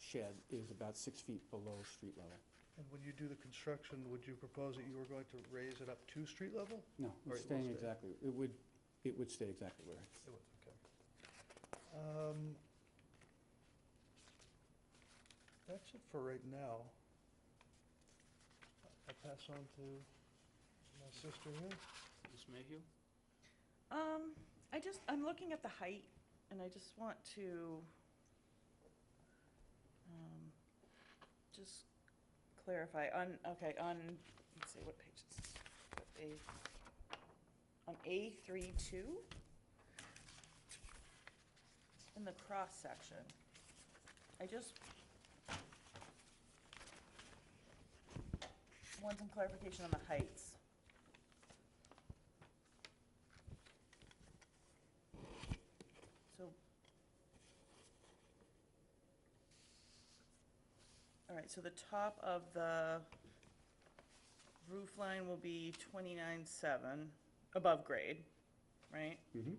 shed is about six feet below street level. And when you do the construction, would you propose that you were going to raise it up to street level? No, Or it will it's staying stay. exactly, it would, it would stay exactly where. it is. It would, okay. Um, That's it for right now. I- I'll pass on to my sister here. Ms. Mayhew? Um, I just, I'm looking at the height, and I just want to, um, just clarify, on, okay, on, let's see, what page is, what page? On A three two? In the cross section. I just want some clarification on the heights. So. All right, so the top of the roof line will be twenty-nine seven, above grade, right? Mhm.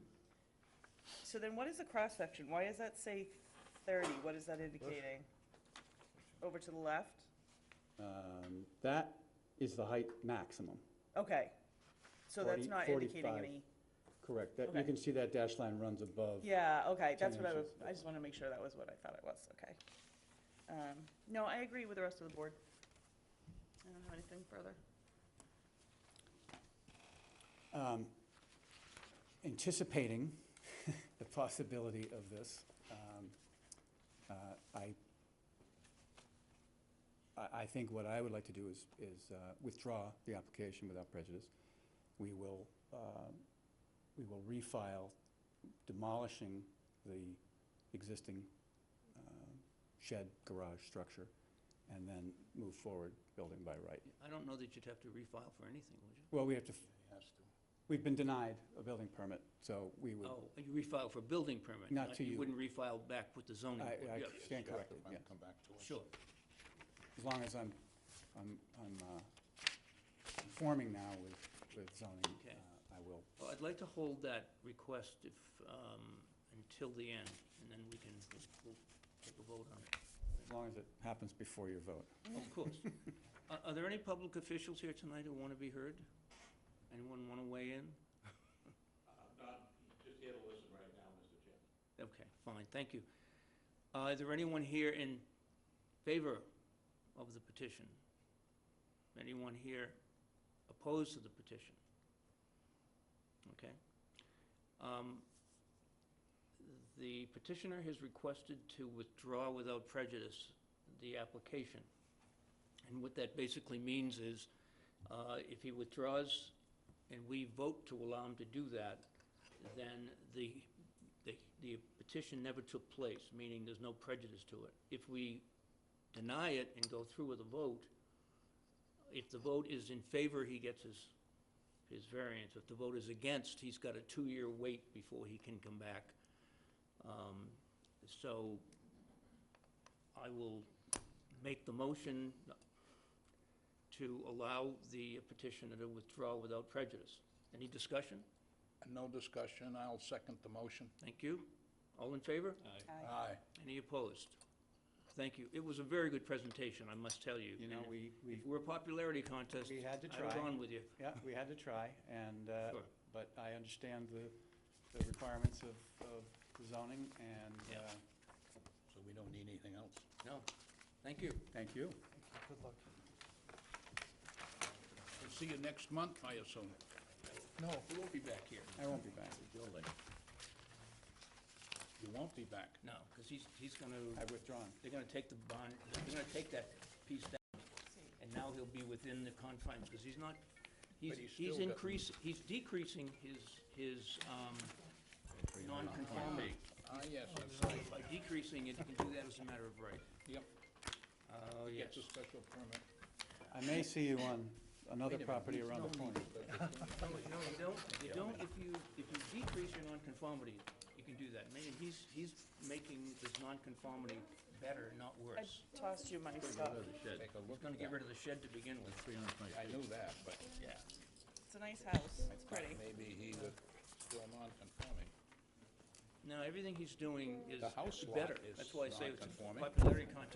So then what is the cross-section? Why does that say thirty? What is that indicating? Over to the left? Um, That is the height maximum, Okay, so that's 40 not indicating 45. any, correct. That, you Okay. can see that dash line runs above. yeah, okay, that's 10 what I was, inches. I just wanna make sure that was what I thought it was, okay. Um, no, I agree with the rest of the board. I don't have anything further. Um, Anticipating the possibility of this, um, uh, I, I, I think what I would like to do is, is uh, withdraw the application without prejudice. We will, um, we will refile demolishing the existing um, shed garage structure and then move forward building by right. I don't know that you'd have to refile for anything, would you? Well, we have to, we've been denied a building permit, so we would, Oh, you refile for building permit. Not to you. You wouldn't refile back with the zoning. I- board. I Yeah, stand corrected, yeah. Come back to us. Sure. As long as I'm, I'm, I'm uh, conforming now with, with zoning, Okay. uh, I will. Well, I'd like to hold that request if, um, until the end, and then we can, we'll- we'll take a vote on it. As long as it happens before your vote. Of course. Are, are there any public officials here tonight who want to be heard? Anyone want to weigh in? I'm not, just here to listen right now, Mr. Chairman. Okay, fine, thank you. Uh, is there anyone here in favor of the petition? Anyone here opposed to the petition? Okay. Um, The petitioner has requested to withdraw without prejudice the application. And what that basically means is, uh, if he withdraws and we vote to allow him to do that, then the, the the petition never took place, meaning there's no prejudice to it. If we deny it and go through with a vote, if the vote is in favor, he gets his, his variance. If the vote is against, he's got a two-year wait before he can come back. Um, So I will make the motion to allow the petitioner to withdraw without prejudice. Any discussion? No discussion, I'll second the motion. Thank you. All in favor? Aye. Aye. Any opposed? Thank you. It was a very good presentation, I must tell you. You know, And we, we, If we're a popularity contest, we had to I was try. on with you. yeah, we had to try, and, uh, Sure. but I understand the, the requirements of, of the zoning, and Yeah. uh, So we don't need anything else. No, thank you. thank you. Good luck. We'll see you next month, I assume. No, We won't be back here. I won't be back. Building. You won't be back. No, because he's, he's going to. I've withdrawn. they're gonna take the bond, they're gonna take that piece down, and now he'll be within the confines, because he's not, he's, But he's he's still got- increasing, he's decreasing his, his, um, nonconformity. Ah, yes, that's So right. by decreasing it, he can do that as a matter of right. Yep, Oh, gets a special permit. I may see you on another Wait a minute. property around the corner. No, no, you don't, you don't, if you, if you decrease your nonconformity, you can do that, meaning he's, he's making this nonconformity better, not I worse. tossed you my stuff. Take a He's look gonna at get rid that. of the shed to begin with, I knew that, but yeah. It's a nice house. It's pretty. maybe he was still non-conforming. No, everything he's doing is The house lot better. is That's why I say it's a non-conforming. popularity contest.